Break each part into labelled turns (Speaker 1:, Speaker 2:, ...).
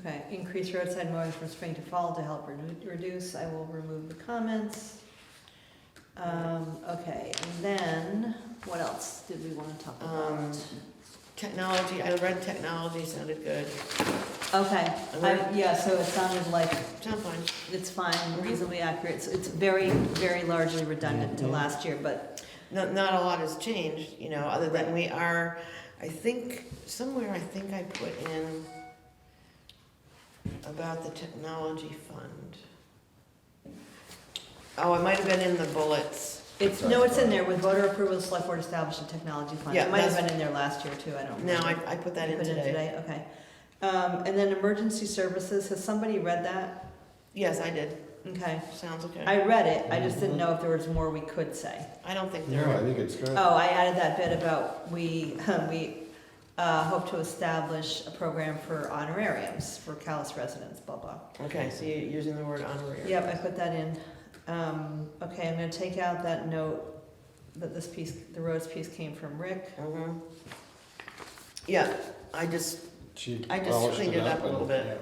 Speaker 1: Okay, increase roadside mowing from spring to fall to help redu- reduce, I will remove the comments. Um, okay, and then, what else did we wanna talk
Speaker 2: Um,
Speaker 1: about?
Speaker 2: Technology, I read technology sounded good.
Speaker 1: Okay, I,
Speaker 2: alright.
Speaker 1: yeah, so it sounded like
Speaker 2: Sound fun.
Speaker 1: it's fine, reasonably accurate, it's, it's very, very largely redundant to last year, but,
Speaker 2: Not, not a lot has changed, you know, other than we are, I think, somewhere I think I put in about the technology fund. Oh, it might have been in the bullets.
Speaker 1: it's, no, it's in there, with voter approval, the select board established a technology fund.
Speaker 2: Yeah,
Speaker 1: It might have
Speaker 2: that's-
Speaker 1: been in there last year too, I don't
Speaker 2: No,
Speaker 1: remember.
Speaker 2: I, I put that
Speaker 1: You
Speaker 2: in
Speaker 1: put it
Speaker 2: today.
Speaker 1: Okay. Um, and then emergency services, has somebody read that?
Speaker 2: Yes, I did.
Speaker 1: Okay.
Speaker 2: Sounds okay.
Speaker 1: I read it, I just didn't know if there was more we could say.
Speaker 2: I don't think there
Speaker 3: No, I
Speaker 2: are.
Speaker 3: think it's good.
Speaker 1: Oh, I added that bit about we, we, uh, hope to establish a program for honorariums for Callis residents, blah, blah.
Speaker 2: Okay, so you're using the word honorary.
Speaker 1: Yep, I put that in. Um, okay, I'm gonna take out that note that this piece, the roads piece came from Rick.
Speaker 2: hmm Yeah, I just,
Speaker 3: She
Speaker 2: I just
Speaker 3: polished
Speaker 2: cleaned it up a
Speaker 3: and-
Speaker 2: little bit.
Speaker 3: yeah.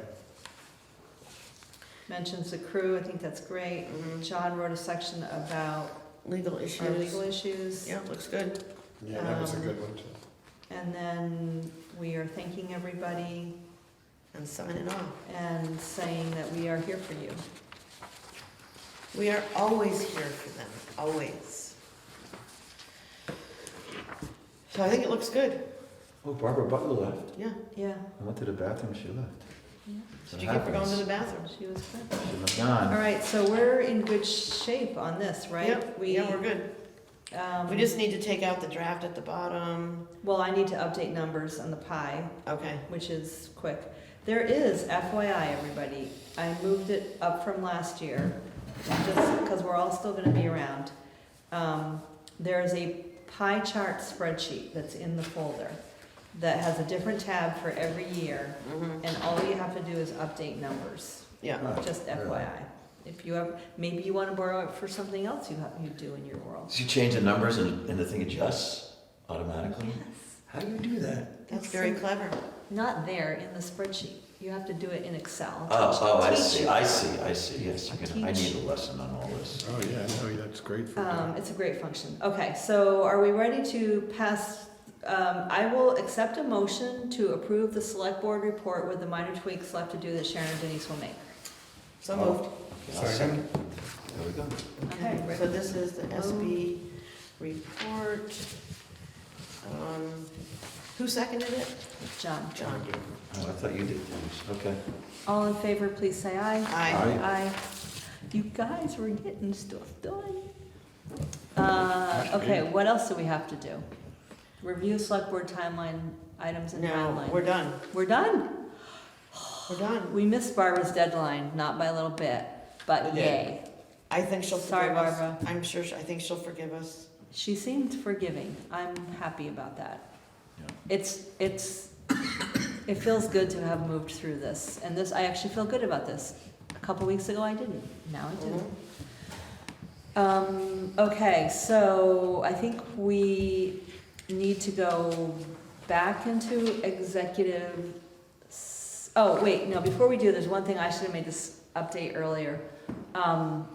Speaker 1: Mentions the crew, I think that's great.
Speaker 2: mhm.
Speaker 1: John wrote a section about
Speaker 2: legal
Speaker 1: our legal
Speaker 2: issues.
Speaker 1: issues.
Speaker 2: Yeah, looks good.
Speaker 3: Yeah, that was a
Speaker 1: Um,
Speaker 3: good one too.
Speaker 1: And then we are thanking everybody
Speaker 2: And signing off.
Speaker 1: and saying that we are here for you.
Speaker 2: We are always here for them, always. So I think it looks good,
Speaker 4: Oh, Barbara Butler left.
Speaker 2: yeah.
Speaker 1: Yeah,
Speaker 4: I went to the bathroom, she left.
Speaker 1: Yeah.
Speaker 2: Did you get for going to the bathroom?
Speaker 1: she was good.
Speaker 4: She was
Speaker 1: All
Speaker 4: gone.
Speaker 1: right, so we're in good shape on this, right?
Speaker 2: Yep,
Speaker 1: We,
Speaker 2: yeah, we're good.
Speaker 1: um,
Speaker 2: We just need to take out the draft at the bottom.
Speaker 1: Well, I need to update numbers on the pie,
Speaker 2: Okay,
Speaker 1: which is quick. There is FYI, everybody, I moved it up from last year, just because we're all still gonna be around. Um, there is a pie chart spreadsheet that's in the folder that has a different tab for every year,
Speaker 2: mhm,
Speaker 1: and all you have to do is update numbers,
Speaker 2: yeah,
Speaker 4: Oh,
Speaker 1: just
Speaker 4: really?
Speaker 1: FYI. If you have, maybe you wanna borrow it for something else you have, you do in your world.
Speaker 4: So you change the numbers and, and the thing adjusts automatically?
Speaker 1: Yes.
Speaker 4: How do you do that?
Speaker 2: that's
Speaker 1: It's
Speaker 2: very
Speaker 1: so-
Speaker 2: clever.
Speaker 1: Not there in the spreadsheet. You have to do it in Excel.
Speaker 2: Uh,
Speaker 4: Oh, oh, I
Speaker 1: Teach
Speaker 4: see,
Speaker 1: you.
Speaker 4: I see, I see, yes, you're gonna, I
Speaker 1: Teach.
Speaker 4: need a lesson on all this.
Speaker 3: Oh, yeah, no, that's great for
Speaker 1: Um,
Speaker 3: that.
Speaker 1: it's a great function. Okay, so are we ready to pass? Um, I will accept a motion to approve the select board report with the minor tweaks left to do that Sharon and Denise will make.
Speaker 2: So moved.
Speaker 4: Okay, I'll second. There we go.
Speaker 2: Okay,
Speaker 1: Okay.
Speaker 2: so this is the SB report. Um, Who seconded it?
Speaker 1: John,
Speaker 2: John did.
Speaker 4: Oh, I thought you did, Denise. okay.
Speaker 1: all in favor, please say aye.
Speaker 2: Aye.
Speaker 1: Aye. You guys were getting stuff done. Uh, okay, what else do we have to do? Review select board timeline, items and
Speaker 2: No,
Speaker 1: timeline.
Speaker 2: we're done,
Speaker 1: We're done.
Speaker 2: we're done.
Speaker 1: We missed Barbara's deadline, not by a little bit, but
Speaker 2: We did.
Speaker 1: yay.
Speaker 2: I think she'll
Speaker 1: Sorry,
Speaker 2: forgive us.
Speaker 1: Barbara.
Speaker 2: I'm sure, she- I think she'll forgive us.
Speaker 1: She seemed forgiving. I'm happy about that.
Speaker 4: Yeah.
Speaker 1: It's, it's, it feels good to have moved through this. And this, I actually feel good about this. A couple weeks ago, I didn't. Now I do.
Speaker 2: Mhm.
Speaker 1: Um, okay, so I think we need to go back into executive. s- Oh, wait, no, before we do, there's one thing I should have made this update earlier. Um,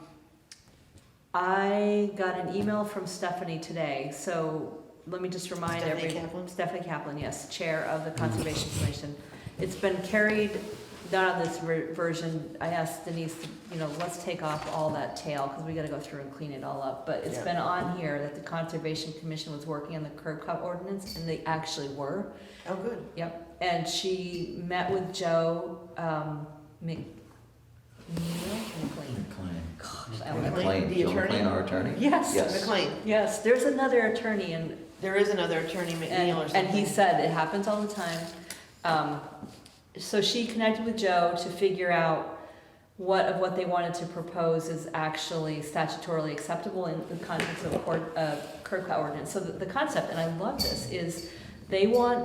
Speaker 1: I got an email from Stephanie today, so let me just remind
Speaker 2: Stephanie
Speaker 1: everyone.
Speaker 2: Kaplan?
Speaker 1: Stephanie Kaplan, yes, Chair of the Conservation Commission. It's been carried, not on this ver- version, I asked Denise, you know, let's take off all that tail, because we gotta go through and clean it all up. But it's
Speaker 2: Yeah.
Speaker 1: been on here that the Conservation Commission was working on the curb cut ordinance, and they actually were.
Speaker 2: Oh, good.
Speaker 1: Yep, and she met with Joe, um, Mc, McLean.
Speaker 4: McLean.
Speaker 1: Gosh, I don't know.
Speaker 2: McLean,
Speaker 4: McLean,
Speaker 2: the
Speaker 4: Jill
Speaker 2: attorney?
Speaker 4: McLean, our attorney?
Speaker 1: Yes,
Speaker 4: Yes.
Speaker 2: McLean,
Speaker 1: yes, there's another attorney and
Speaker 2: there is another attorney, McNeil or
Speaker 1: And,
Speaker 2: something.
Speaker 1: and he said, it happens all the time. Um, so she connected with Joe to figure out what of what they wanted to propose is actually statutorily acceptable in the context of court, uh, curb cut ordinance. So the, the concept, and I love this, is they want